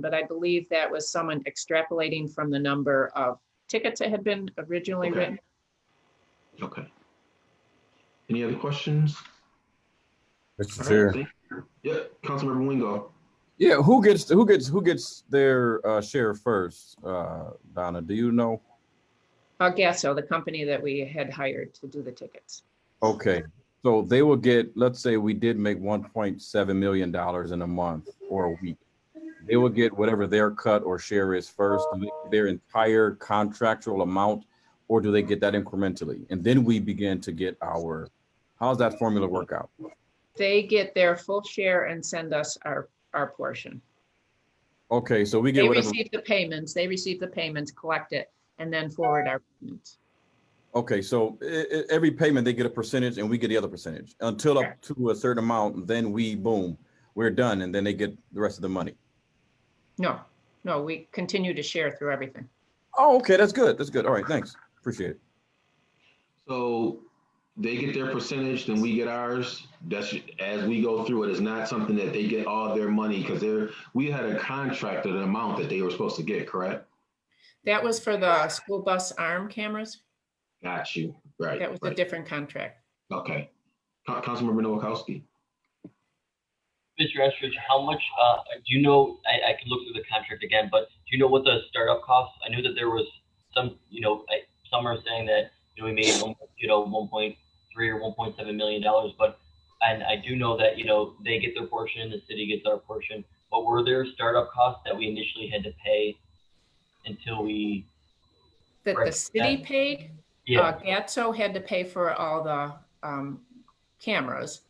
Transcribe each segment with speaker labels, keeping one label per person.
Speaker 1: But I believe that was someone extrapolating from the number of tickets that had been originally
Speaker 2: Okay.
Speaker 1: written.
Speaker 2: Okay. Any other questions?
Speaker 3: Mr.
Speaker 2: All right,
Speaker 3: Chair.
Speaker 2: thank you. Yep, Councilmember Wingo.
Speaker 3: Yeah, who gets who gets who gets their uh, share first? Uh, Donna, do you know?
Speaker 1: I guess so, Uh, the company that we had hired to do the tickets.
Speaker 3: Okay, so they will get. Let's say we did make one point seven million dollars in a month or a week. They will get whatever their cut or share is first. Do they get Their entire contractual amount, or do they get that incrementally? And then we begin to get our. How's that formula work out?
Speaker 1: They get their full share and send us our, our portion.
Speaker 3: Okay, so we get
Speaker 1: They
Speaker 3: whatever.
Speaker 1: receive the payments, they receive the payments, collect it, and then forward our payments.
Speaker 3: Okay, so i- i- every payment, they get a percentage and we get the other percentage until up to a certain amount, then we, boom, we're done, and then they get the rest of the money.
Speaker 1: No, no, we continue to share through everything.
Speaker 3: Oh, okay, that's good. That's good. All right, thanks. Appreciate it.
Speaker 2: So they get their percentage, then we get ours. That's as we go through it. It's not something that they get all their money because they're, we had a contract of an amount that they were supposed to get, correct?
Speaker 1: That was for the school bus arm cameras.
Speaker 2: Got you. Right.
Speaker 1: That was a
Speaker 2: right.
Speaker 1: different contract.
Speaker 2: Okay. Coun- Councilmember Noakowski.
Speaker 4: Mr. Estridge, how much, uh, do you know, I, I could look through the contract again, but do you know what the startup costs? I knew that there was some, you know, I, some are saying that, you know, we made, one- you know, one point three or one point seven million dollars, but, and I do know that, you know, they get their portion, the city gets our portion, but were there startup costs that we initially had to pay until we,
Speaker 1: That the
Speaker 4: Right,
Speaker 1: city paid?
Speaker 4: yeah,
Speaker 1: Uh, Gatso had to pay for all the, um, cameras.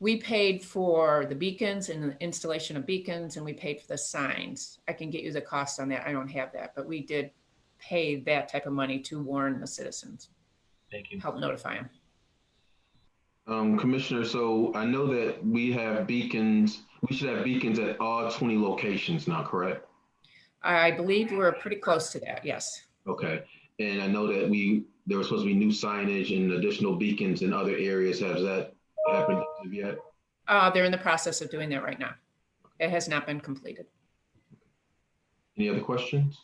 Speaker 1: We paid for the beacons and the installation of beacons and we paid for the signs. I can get you the cost on that. I don't have that, but we did pay that type of money to warn the citizens,
Speaker 4: thank you.
Speaker 1: help notify them.
Speaker 2: Um, Commissioner, so I know that we have beacons, we should have beacons at all twenty locations now, correct?
Speaker 1: I believe we're pretty close to that, yes.
Speaker 2: Okay, and I know that we, there was supposed to be new signage and additional beacons in other areas. Has that happened yet?
Speaker 1: Uh, they're in the process of doing that right now. It has not been completed.
Speaker 2: Any other questions?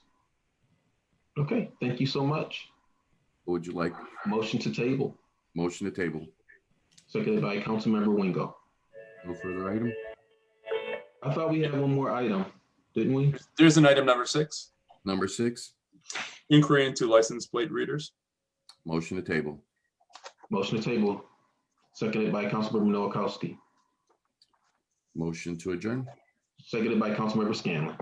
Speaker 2: Okay, thank you so much.
Speaker 5: What would you like?
Speaker 2: Motion to table,
Speaker 5: Motion to table.
Speaker 2: seconded by Councilmember Wingo.
Speaker 5: No further item?
Speaker 2: I thought we had one more item, didn't we?
Speaker 6: There's an item number six,
Speaker 5: Number six,
Speaker 6: inquiry into license plate readers.
Speaker 5: motion to table.
Speaker 2: Motion to table, seconded by Councilmember Noakowski,
Speaker 5: Motion to adjourn.
Speaker 2: seconded by Councilmember Scanlon.